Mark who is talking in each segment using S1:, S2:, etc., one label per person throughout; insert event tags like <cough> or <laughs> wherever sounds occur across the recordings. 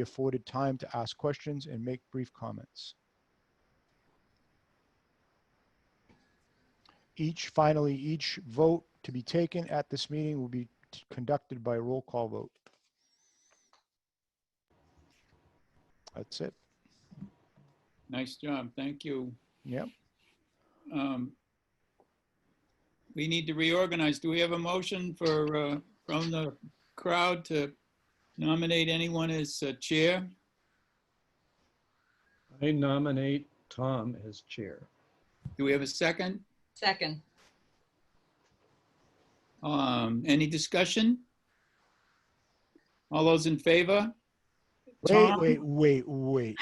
S1: be afforded time to ask questions and make brief comments. Each, finally, each vote to be taken at this meeting will be t- conducted by roll call vote. That's it.
S2: Nice job. Thank you.
S1: Yep.
S2: Um, We need to reorganize. Do we have a motion for, uh, from the crowd to nominate anyone as uh, chair?
S3: I nominate Tom as chair.
S2: Do we have a second?
S4: Second.
S2: Um, Any discussion? All those in favor?
S1: Wait,
S2: Tom?
S1: wait, wait, wait.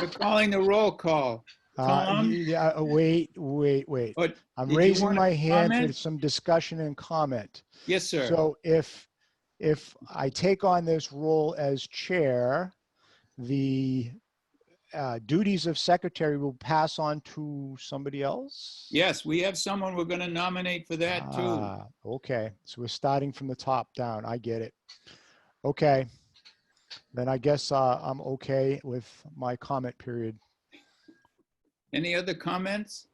S2: We're calling the roll call.
S1: Uh,
S2: Tom?
S1: yeah, uh, wait, wait, wait.
S2: But,
S1: I'm
S2: did you
S1: raising
S2: wanna
S1: my hand for
S2: comment?
S1: some discussion and comment.
S2: yes, sir.
S1: So if, if I take on this role as chair, the uh, duties of secretary will pass on to somebody else?
S2: Yes, we have someone we're going to nominate for that too.
S1: Ah, Okay, so we're starting from the top down. I get it. Okay. Then I guess uh, I'm okay with my comment period.
S2: Any other comments?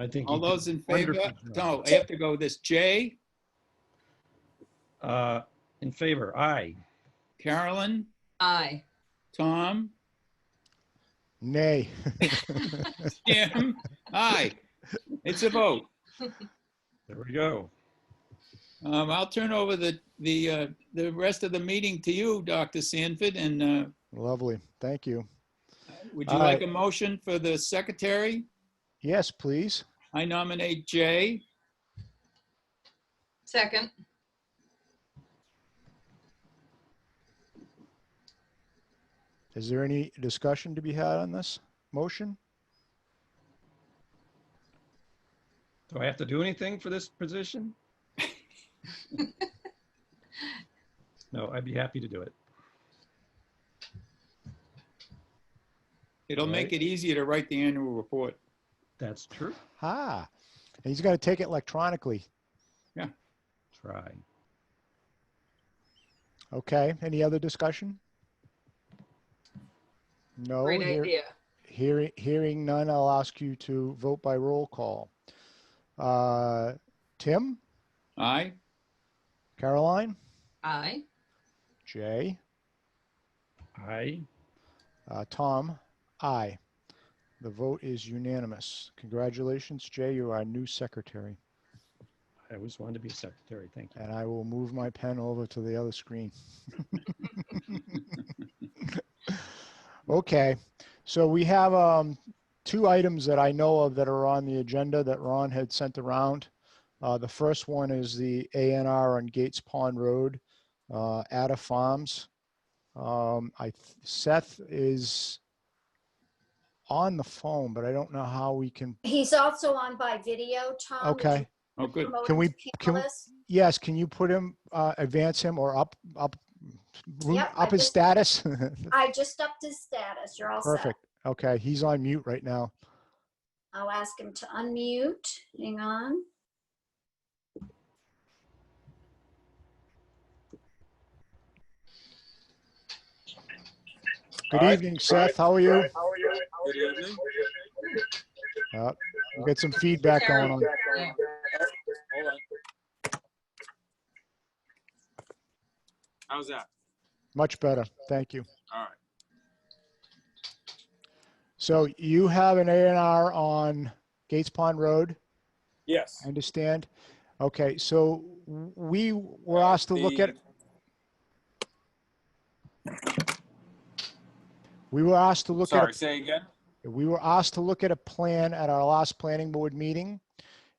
S3: I think.
S2: All
S3: he did
S2: those in
S3: a wonderful
S2: favor?
S3: job.
S2: No, I have to go with this. Jay,
S3: Uh, In favor, aye.
S2: Carolyn,
S4: <laughs> Aye.
S2: Tom?
S1: Nay. <laughs>
S2: Jim, aye. It's a vote.
S3: There we go.
S2: Um, I'll turn over the, the, uh, the rest of the meeting to you, Dr. Sanford, and, uh,
S1: Lovely. Thank you.
S2: would you
S1: All
S2: like
S1: right.
S2: a motion for the secretary?
S1: Yes, please.
S2: I nominate Jay.
S4: Second.
S1: Is there any discussion to be had on this motion?
S3: Do I have to do anything for
S2: <laughs>
S3: this position? No, I'd be happy to do it.
S2: It'll make it easier to write the annual report.
S3: That's true.
S1: Ha. And he's going to take it electronically.
S3: Try.
S1: Okay. Any other discussion? No.
S4: Great
S1: hear-
S4: idea.
S1: Hearing, hearing none, I'll ask you to vote by roll call. Uh, Tim,
S2: Aye?
S1: Caroline,
S4: Aye.
S1: Jay,
S3: Aye.
S1: uh, Tom, I. The vote is unanimous. Congratulations, Jay, you're our new secretary.
S3: I always wanted to be secretary. Thank you.
S1: And I will move my pen over to the other screen. Okay, so we have um, two items that I know of that are on the agenda that Ron had sent around. Uh, The first one is the ANR on Gates Pond Road, uh, Ada Farms. Um, I, th- Seth is on the phone, but I don't know how we can,
S5: He's also on by video, Tom. would you
S1: okay.
S2: Oh, good.
S5: promote
S1: Can
S5: him
S1: we-
S5: to panelist?
S1: can we- Yes, can you put him, uh, advance him or up, up, root-
S5: Yep, I
S1: up his
S5: just-
S1: status? <laughs>
S5: I just upped his status. You're all set.
S1: Perfect. Okay, he's on mute right now.
S5: I'll ask him to unmute. Hang on.
S1: Good
S6: Hi.
S1: evening, Seth. How are you?
S6: How are you? Good evening.
S1: We got some feedback going on.
S4: Yeah.
S6: Hold on. How's that?
S1: Much better. Thank you.
S6: All right.
S1: So you have an A and R on Gates Pond Road,
S6: Yes.
S1: I understand? Okay, so w- we were asked to look at, we were asked to look at,
S6: Sorry, say again?
S1: a- we were asked to look at a plan at our last planning board meeting.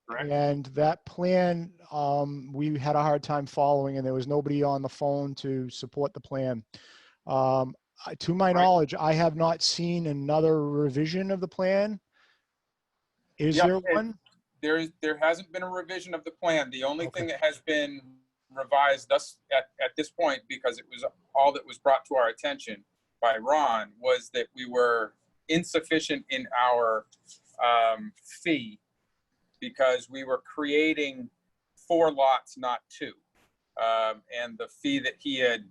S6: Correct.
S1: And that plan, um, we had a hard time following and there was nobody on the phone to support the plan. Um, I- to my
S6: Right.
S1: knowledge, I have not seen another revision of the plan. Is
S6: Yep,
S1: there
S6: it-
S1: one?
S6: There is, there hasn't been a revision of the plan. The only
S1: Okay.
S6: thing that has been revised thus, at, at this point, because it was all that was brought to our attention by Ron, was that we were insufficient in our, um, fee because we were creating four lots, not two. um, and the fee that he had